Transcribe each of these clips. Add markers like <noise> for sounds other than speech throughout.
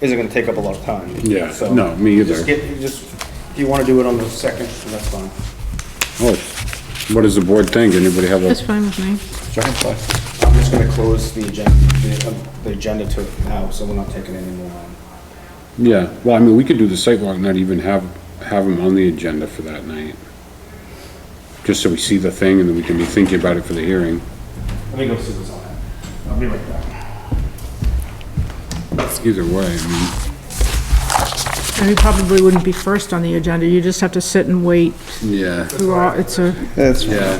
isn't gonna take up a lot of time. Yeah, So, no, me either. Just get, just, if you wanna do it on the second, that's fine. Oh, What does the board think? Anybody have That's a, fine with me. I'm just gonna close the agenda, the, um, the agenda to it now, so we're not taking any more. on. yeah, well, I mean, we could do the sidewalk, not even have, have them on the agenda for that night. Just so we see the thing and then we can be thinking about it for the hearing. Let me go see what's on that. I'll be right back. Either way, I mean, And you probably wouldn't be first on the agenda, you just have to sit and wait. yeah, through all- It's a, That's, yeah.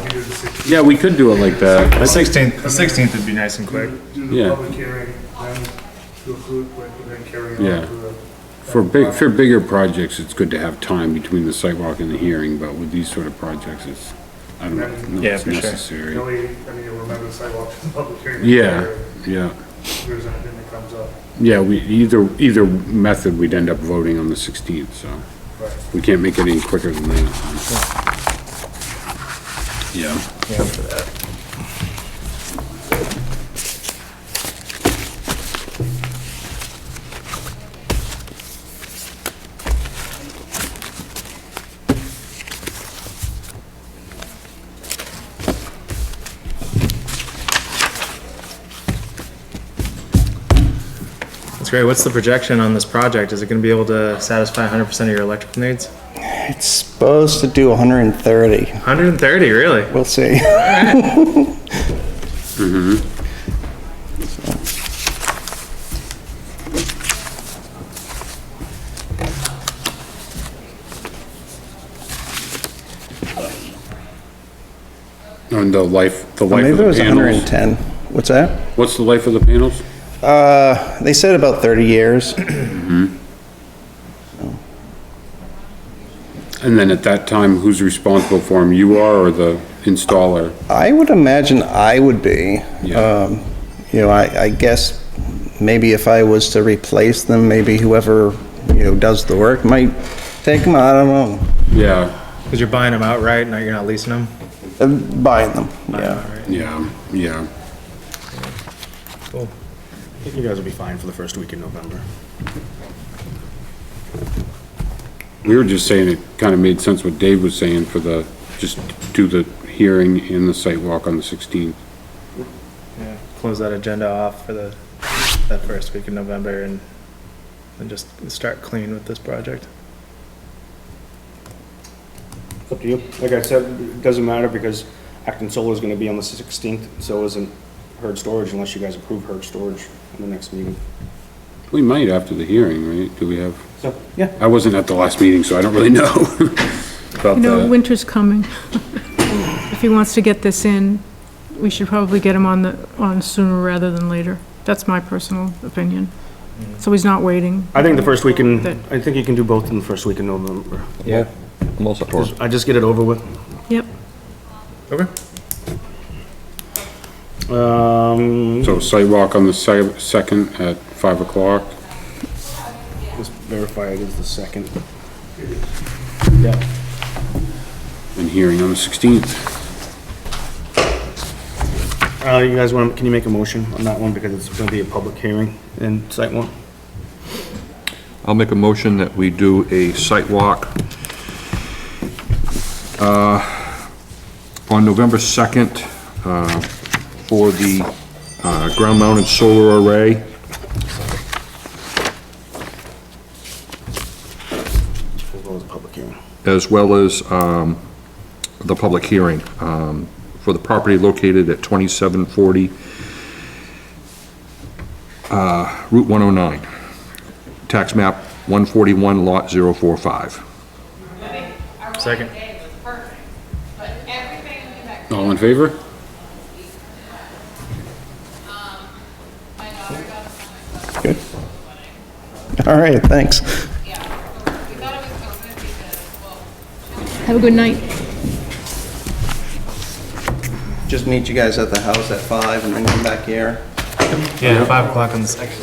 Yeah, we could do it like that. The sixteenth, the sixteenth would be nice and quick. Do Yeah. the public hearing, then do a food, quick, and then carry Yeah. on to the. For big, for bigger projects, it's good to have time between the sidewalk and the hearing, but with these sort of projects, it's, I don't know, Yeah, it's for sure. The necessary. only, I mean, you'll remember the sidewalk, the public hearing. Yeah, yeah. If there's anything that comes up. Yeah, we, either, either method, we'd end up voting on the 16th, so Right. we can't make it any quicker than that. Yeah, That's great. What's the projection on this project? Is it gonna be able to satisfy hundred percent of your electrical needs? it's supposed to do 130. Hundred and thirty, really? We'll <laughs> see. and the life, the life Maybe of it the was panels. 110. What's that? What's the life of the panels? Uh, they said about 30 years. And then at that time, who's responsible for them? You are or the installer? I would imagine I would be. Yeah. Um, You know, I, I guess maybe if I was to replace them, maybe whoever, you know, does the work might take them, I don't know. Yeah, Cause you're buying them outright, not, you're not leasing them? Uh, Buying them, yeah. yeah, yeah. Cool. I think you guys will be fine for the first week in November. We were just saying it kind of made sense what Dave was saying for the, just do the hearing and the site walk on the 16th. Yeah. Close that agenda off for the, that first week in November and, and just start clean with this project. It's up to you. Like I said, it doesn't matter because Acton Solar is gonna be on the sixteenth, so isn't Herd Storage unless you guys approve Herd Storage in the next meeting. We might after the hearing, right? Do we have? So, yeah, I wasn't at the last meeting, so I don't really <laughs> know about you know, that. winter's coming. <laughs> If he wants to get this in, we should probably get him on the, on sooner rather than later. That's my personal opinion. So he's not waiting. I think the first week in, I think you can do both in the first week in November. Yeah, I'm also for it. I just get it over with. Yep. Okay. Um, So sidewalk on the si- second at five o'clock. let's verify it is the second. and hearing on the sixteenth. Uh, you guys want, can you make a motion on that one because it's gonna be a public hearing and site one? I'll make a motion that we do a site walk uh, on November 2nd uh, for the uh, ground-mounted solar array. As well as a public hearing. as well as um, the public hearing um, for the property located at 2740 uh, Route 109, tax map 141, lot 045. Second. All in favor? All right, thanks. Have a good night. Just meet you guys at the house at five and then come back here. Yeah, five o'clock on the second.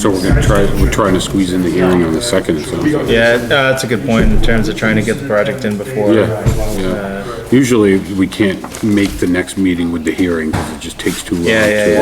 So we're gonna try, we're trying to squeeze in the hearing on the second, it sounds like. Yeah, uh, that's a good point in terms of trying to get the project in before. Yeah, yeah. Usually, we can't make the next meeting with the hearing, because it just takes too long. Yeah, yeah, to- yeah.